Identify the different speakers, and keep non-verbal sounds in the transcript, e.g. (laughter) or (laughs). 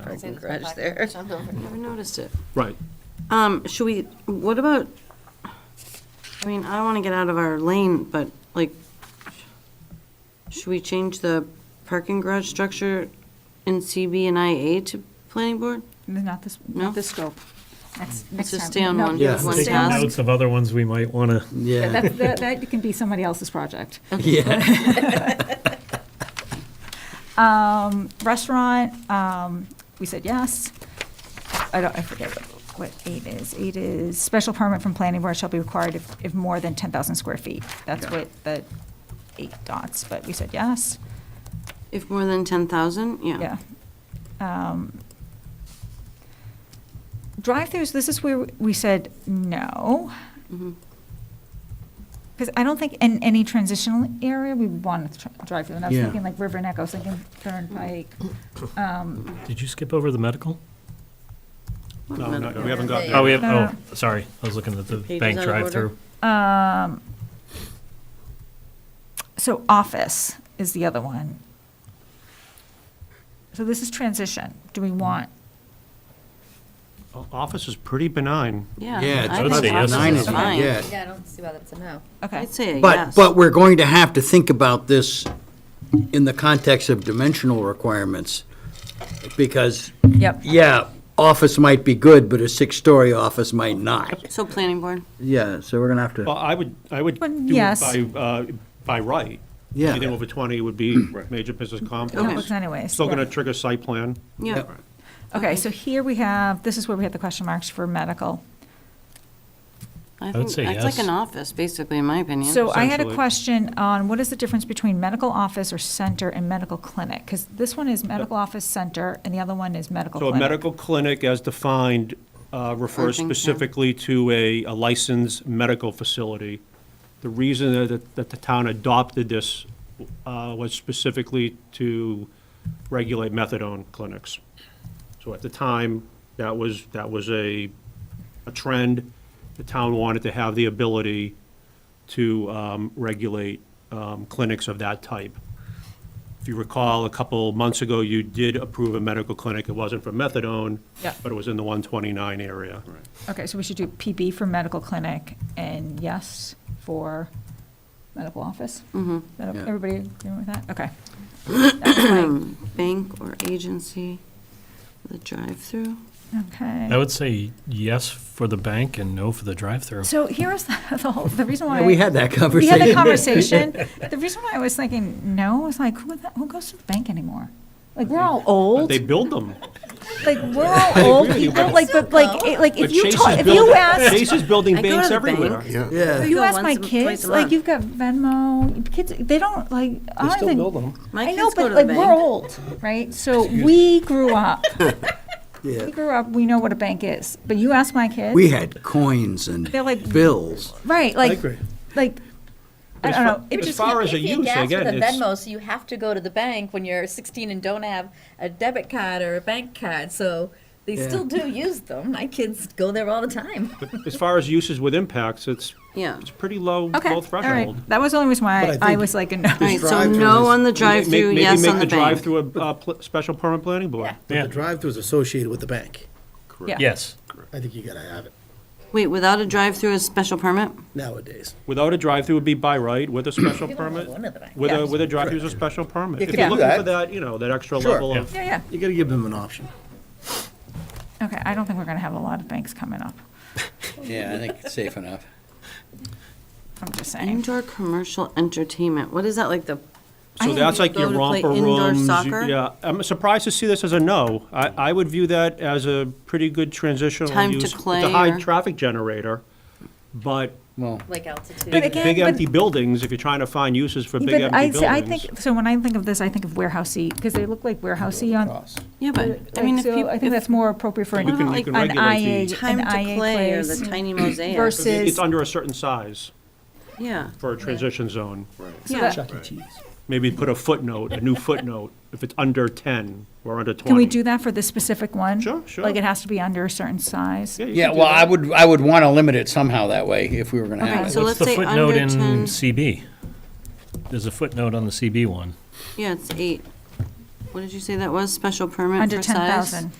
Speaker 1: parking garage there.
Speaker 2: Never noticed it.
Speaker 3: Right.
Speaker 2: Um, should we, what about, I mean, I don't want to get out of our lane, but like, should we change the parking garage structure in CB and IA to planning board?
Speaker 4: Not this,
Speaker 2: No?
Speaker 4: not this scope. Next- next
Speaker 2: just
Speaker 4: time.
Speaker 2: stay on
Speaker 4: No,
Speaker 2: one-
Speaker 4: just
Speaker 2: one
Speaker 4: stay on
Speaker 2: task.
Speaker 4: one.
Speaker 5: Notes of other ones we might want to,
Speaker 4: Yeah,
Speaker 3: Yeah.
Speaker 4: That, that- that can be somebody else's project.
Speaker 3: Yeah.
Speaker 4: (laughs) Um, restaurant, um, we said yes. I don't, I forget what, what eight is. Eight is, special permit from planning board shall be required if, if more than ten thousand square feet. That's what the eight dots, but we said yes,
Speaker 2: If more than 10,000, yeah.
Speaker 4: yeah. Um, Drive-throughs, this is where we said no.
Speaker 2: Mhm.
Speaker 4: Because I don't think in any transitional area, we want to drive through, and I was
Speaker 3: Yeah.
Speaker 4: thinking like River Neck, I was thinking Turnpike. Um,
Speaker 5: did you skip over the medical?
Speaker 2: What
Speaker 3: No,
Speaker 2: minute?
Speaker 3: no, we haven't got.
Speaker 1: Yeah.
Speaker 5: Oh, we have,
Speaker 4: No,
Speaker 5: oh, sorry, I was looking at the
Speaker 2: Pages
Speaker 5: bank
Speaker 2: Uh-huh. out of order.
Speaker 5: drive-through.
Speaker 4: um, So office is the other one. So this is transition. Do we want,
Speaker 6: O- Office is pretty benign.
Speaker 2: Yeah.
Speaker 3: Yeah,
Speaker 2: I
Speaker 5: I would
Speaker 2: think
Speaker 5: say yes
Speaker 2: office
Speaker 3: nine
Speaker 5: is
Speaker 2: is
Speaker 3: is,
Speaker 2: fine.
Speaker 3: yeah.
Speaker 1: Yeah, I don't see why that's a no.
Speaker 4: okay,
Speaker 2: I'd say a
Speaker 3: But,
Speaker 2: yes.
Speaker 3: but we're going to have to think about this in the context of dimensional requirements, because,
Speaker 4: yep,
Speaker 3: yeah, office might be good, but a six-story office might not.
Speaker 2: So planning board,
Speaker 3: Yeah, so we're gonna have
Speaker 6: Well,
Speaker 3: to,
Speaker 6: I would, I would
Speaker 4: Well,
Speaker 6: do
Speaker 4: yes.
Speaker 6: it by, uh, by right.
Speaker 3: Yeah.
Speaker 6: Anything over 20 would be major business complex.
Speaker 4: complex anyways.
Speaker 6: Still going to
Speaker 4: right.
Speaker 6: trigger site plan.
Speaker 2: yeah.
Speaker 3: Yep.
Speaker 4: Okay, so here we have, this is where we had the question marks for medical.
Speaker 2: I
Speaker 5: would
Speaker 2: think,
Speaker 5: say
Speaker 2: that's like
Speaker 5: yes.
Speaker 2: an office, basically, in my opinion.
Speaker 4: So I had a
Speaker 6: Essentially.
Speaker 4: question on what is the difference between medical office or center and medical clinic? Because this one is medical office center and the other one is medical
Speaker 6: So a
Speaker 4: clinic.
Speaker 6: medical clinic, as defined, uh, refers
Speaker 2: Urgent care.
Speaker 6: specifically to a a licensed medical facility. The reason that, that the town adopted this uh, was specifically to regulate methadone clinics. So at the time, that was, that was a, a trend. The town wanted to have the ability to um, regulate um, clinics of that type. If you recall, a couple months ago, you did approve a medical clinic. It wasn't for methadone,
Speaker 4: Yeah.
Speaker 6: but it was in the 129 area.
Speaker 4: Okay, so we should do PB for medical clinic and yes for medical office? Mm-hmm.
Speaker 3: Yeah.
Speaker 4: Everybody agreeing with that?
Speaker 2: (coughs)
Speaker 4: Okay.
Speaker 2: Bank or agency, the drive-through.
Speaker 5: I
Speaker 4: Okay.
Speaker 5: would say yes for the bank and no for the drive-through.
Speaker 4: So here is (laughs) the the whole, the reason why.
Speaker 3: Yeah, we had that
Speaker 4: We had
Speaker 3: conversation.
Speaker 4: the conversation.
Speaker 6: (laughs)
Speaker 4: The reason why I was thinking no was like, who, the- who goes to the bank anymore? Like, we're all
Speaker 6: But
Speaker 4: old.
Speaker 6: They build them.
Speaker 4: Like,
Speaker 6: (laughs)
Speaker 4: we're all old
Speaker 6: with you,
Speaker 4: people.
Speaker 6: but-
Speaker 4: Like, but like, it- like
Speaker 6: But
Speaker 4: if you
Speaker 6: Chase
Speaker 4: talk,
Speaker 6: is
Speaker 4: if
Speaker 6: building-
Speaker 4: you asked
Speaker 6: Chase is
Speaker 2: I
Speaker 6: building
Speaker 2: go to
Speaker 6: banks
Speaker 2: the
Speaker 6: everywhere.
Speaker 2: bank.
Speaker 3: Yeah,
Speaker 4: You
Speaker 2: go
Speaker 4: ask my
Speaker 2: once a- twice
Speaker 4: kids,
Speaker 2: a
Speaker 4: like
Speaker 2: month.
Speaker 4: you've got Venmo, kids, they don't like, I don't think.
Speaker 2: My
Speaker 4: I know,
Speaker 2: kids go to
Speaker 4: but
Speaker 2: the
Speaker 4: like, we're
Speaker 2: bank.
Speaker 4: old, right? So we grew
Speaker 6: (laughs)
Speaker 4: up,
Speaker 3: yeah.
Speaker 4: we grew up, we know what a bank is, but you ask my kids.
Speaker 3: We had coins and
Speaker 4: They're like-
Speaker 3: bills.
Speaker 4: Right, like, like, I
Speaker 6: As
Speaker 4: don't
Speaker 6: far-
Speaker 4: know, it
Speaker 6: As
Speaker 4: just,
Speaker 6: far as a
Speaker 1: If you
Speaker 6: use,
Speaker 1: gas with
Speaker 6: again,
Speaker 1: a
Speaker 6: it's.
Speaker 1: Venmo, so you have to go to the bank when you're 16 and don't have a debit card or a bank card, so they
Speaker 3: Yeah.
Speaker 1: still do use them. My kids go there all the time.
Speaker 6: As far as uses with impacts, it's,
Speaker 2: Yeah.
Speaker 6: it's pretty low,
Speaker 4: okay,
Speaker 6: low
Speaker 4: all
Speaker 6: threshold.
Speaker 4: right. That was the only reason why I was like, a no.
Speaker 2: All right, so
Speaker 7: drive-through
Speaker 2: no
Speaker 7: is-
Speaker 2: on the
Speaker 6: Maybe-
Speaker 2: drive-through,
Speaker 6: maybe
Speaker 2: yes
Speaker 6: make
Speaker 2: on the bank.
Speaker 6: drive-through a, uh, pl- special permit planning board.
Speaker 5: Yeah.
Speaker 7: The drive-through is associated with the bank.
Speaker 4: Yeah.
Speaker 5: Yes.
Speaker 7: I think you gotta have it
Speaker 2: Wait, without a drive-through is special permit?
Speaker 7: nowadays.
Speaker 6: Without a drive-through would be by right, with a special
Speaker 1: You don't have
Speaker 6: permit.
Speaker 1: one of the bank.
Speaker 6: With a, with a drive-through is a special permit.
Speaker 7: You
Speaker 6: If
Speaker 7: can
Speaker 6: you're
Speaker 7: do
Speaker 6: looking for
Speaker 7: that.
Speaker 6: that, you know, that extra
Speaker 7: Sure.
Speaker 6: level of.
Speaker 4: Yeah, yeah,
Speaker 7: You gotta give them an option.
Speaker 4: okay, I don't think we're gonna have a lot of banks coming up,
Speaker 3: Yeah, I think it's safe enough.
Speaker 4: I'm just saying.
Speaker 2: Indoor commercial entertainment, what is that, like the,
Speaker 6: So
Speaker 4: I
Speaker 6: that's like
Speaker 2: go
Speaker 6: your
Speaker 2: to play
Speaker 6: romper
Speaker 2: indoor
Speaker 6: rooms. you-
Speaker 2: soccer?
Speaker 6: Yeah, I'm surprised to see this as a no. I, I would view that as a pretty good transitional use.
Speaker 2: Time to
Speaker 6: It's
Speaker 2: play
Speaker 6: a high
Speaker 2: or-
Speaker 6: traffic generator, but
Speaker 3: Well,
Speaker 1: Like altitude.
Speaker 4: But
Speaker 6: big,
Speaker 4: again,
Speaker 6: big
Speaker 4: but-
Speaker 6: empty buildings, if you're trying to find uses for big empty
Speaker 4: But I,
Speaker 6: buildings.
Speaker 4: see- I think, so when I think of this, I think of warehousey, because they look like warehousey on,
Speaker 2: yeah, but, I mean, if
Speaker 4: so
Speaker 2: you,
Speaker 4: I think
Speaker 2: if
Speaker 4: that's more appropriate for an
Speaker 2: What
Speaker 4: an
Speaker 2: about
Speaker 6: You can
Speaker 4: IA,
Speaker 6: regulate the-
Speaker 2: time
Speaker 4: an
Speaker 2: to
Speaker 4: IA
Speaker 2: play or
Speaker 4: place.
Speaker 2: the (laughs) tiny mosaic.
Speaker 4: versus-
Speaker 6: It's
Speaker 4: is-
Speaker 6: it's under a certain size
Speaker 2: Yeah,
Speaker 6: for a transition zone.
Speaker 2: yeah.
Speaker 7: E. Cheese.
Speaker 6: Maybe put a footnote, a new footnote, if it's under 10 or under 20.
Speaker 4: Can we do that for this specific one?
Speaker 6: Sure, sure.
Speaker 4: Like it has to be under a certain size?
Speaker 6: you
Speaker 3: Yeah,
Speaker 6: can do
Speaker 3: well, I
Speaker 6: that.
Speaker 3: would, I would want to limit it somehow that way if we were going to
Speaker 2: Okay,
Speaker 3: have
Speaker 2: so
Speaker 3: it.
Speaker 5: What's
Speaker 2: let's
Speaker 5: the
Speaker 2: say
Speaker 5: footnote
Speaker 2: under
Speaker 5: in
Speaker 2: 10.
Speaker 5: CB? There's a footnote on the CB one.
Speaker 2: Yeah, it's eight. What did you say that was? Special permit
Speaker 4: under
Speaker 2: for size?
Speaker 4: 10,000.